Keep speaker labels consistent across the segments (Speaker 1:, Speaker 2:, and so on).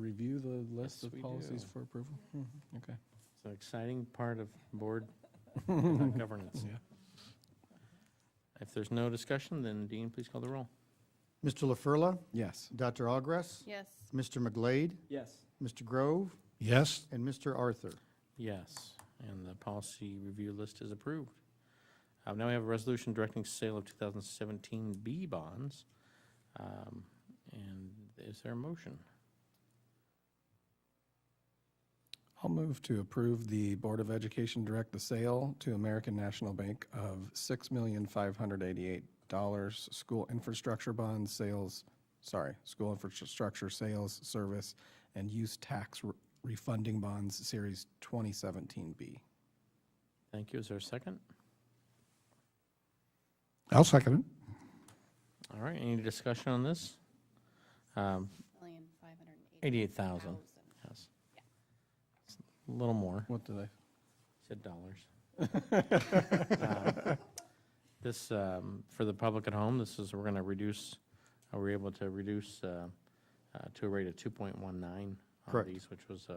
Speaker 1: review the list
Speaker 2: Yes,
Speaker 1: of
Speaker 2: we
Speaker 1: policies
Speaker 2: do. Mm-hmm.
Speaker 1: for approval? Hmm, Okay.
Speaker 2: It's an exciting part of board uh, governance.
Speaker 1: Yeah.
Speaker 2: If there's no discussion, then Dean, please call the roll.
Speaker 3: Mr. LaFurla,
Speaker 1: Yes.
Speaker 3: Dr. Ogres,
Speaker 4: Yes.
Speaker 3: Mr. McGlade,
Speaker 5: Yes.
Speaker 3: Mr. Grove,
Speaker 6: Yes,
Speaker 3: and Mr. Arthur.
Speaker 2: Yes, and the policy review list is approved. Uh, Now we have a resolution directing sale of 2017 B bonds. Um, And is there a motion?
Speaker 1: I'll move to approve the Board of Education direct the sale to American National Bank of $6,588 school infrastructure bond sales, sorry, school infrastructure sales, service, and use tax re- refunding bonds, Series 2017B.
Speaker 2: Thank you. Is there a second?
Speaker 6: I'll second it.
Speaker 2: All right, any discussion on this? Um,
Speaker 4: Million five hundred and eighty
Speaker 2: 88,000,
Speaker 4: thousand.
Speaker 2: yes. It's A little more.
Speaker 1: What did I?
Speaker 2: Said dollars. Uh, This, um, for the public at home, this is, we're going to reduce, uh, we're able to reduce uh, uh, to a rate of 2.19 on
Speaker 3: Correct.
Speaker 2: these, which was uh,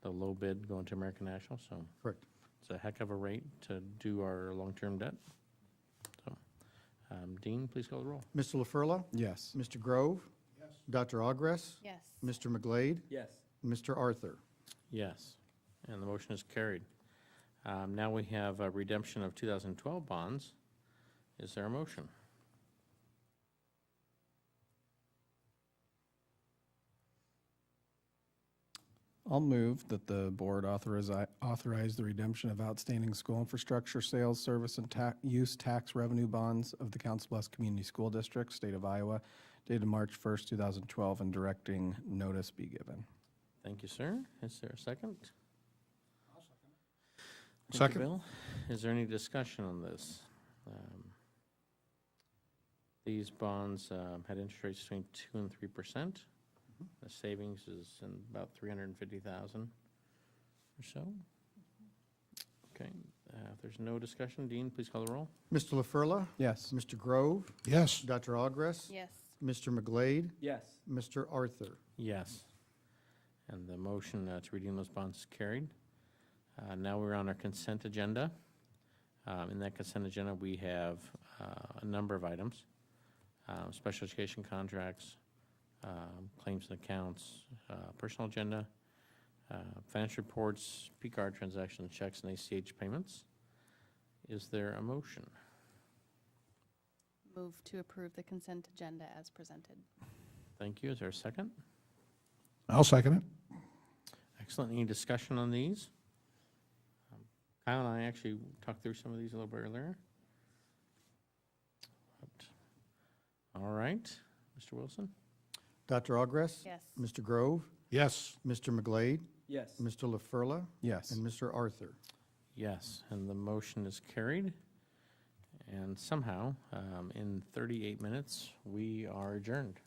Speaker 2: the low bid going to American National, so
Speaker 3: Correct.
Speaker 2: it's a heck of a rate to do our long-term debt. So, um, Dean, please call the roll.
Speaker 3: Mr. LaFurla,
Speaker 1: Yes.
Speaker 3: Mr. Grove, Dr. Ogres,
Speaker 4: Yes.
Speaker 3: Mr. McGlade,
Speaker 5: Yes.
Speaker 3: and Mr. Arthur.
Speaker 2: Yes, and the motion is carried. Um, Now we have uh, redemption of 2012 bonds. Is there a motion?
Speaker 1: I'll move that the board authorize, authorize the redemption of outstanding school infrastructure sales, service, and ta, use tax revenue bonds of the Council Bluffs Community School District, State of Iowa, dated March 1st, 2012, and directing notice be given.
Speaker 2: Thank you, sir. Is there a second? Thank you,
Speaker 6: Second.
Speaker 2: Bill. Is there any discussion on this? Um, These bonds um, had interest rates between 2 and 3%. The savings is in about 350,000 or so. Okay, uh, if there's no discussion, Dean, please call the roll.
Speaker 3: Mr. LaFurla,
Speaker 1: Yes.
Speaker 3: Mr. Grove,
Speaker 6: Yes,
Speaker 3: Dr. Ogres,
Speaker 4: Yes.
Speaker 3: Mr. McGlade,
Speaker 5: Yes.
Speaker 3: Mr. Arthur.
Speaker 2: Yes. And the motion uh, to redeem those bonds is carried. Uh, Now we're on our consent agenda. Um, In that consent agenda, we have uh, a number of items, um, special education contracts, um, claims and accounts, uh, personal agenda, uh, financial reports, P card transactions, checks, and ACH payments. Is there a motion?
Speaker 4: Move to approve the consent agenda as presented.
Speaker 2: Thank you. Is there a second?
Speaker 6: I'll second it.
Speaker 2: Excellent. Any discussion on these? Um, Kyle and I actually talked through some of these a little bit earlier. All right, Mr. Wilson?
Speaker 3: Dr. Ogres,
Speaker 4: Yes.
Speaker 3: Mr. Grove,
Speaker 6: Yes,
Speaker 3: Mr. McGlade,
Speaker 5: Yes.
Speaker 3: Mr. LaFurla,
Speaker 1: Yes.
Speaker 3: and Mr. Arthur.
Speaker 2: Yes, and the motion is carried. And somehow, um, in 38 minutes, we are adjourned.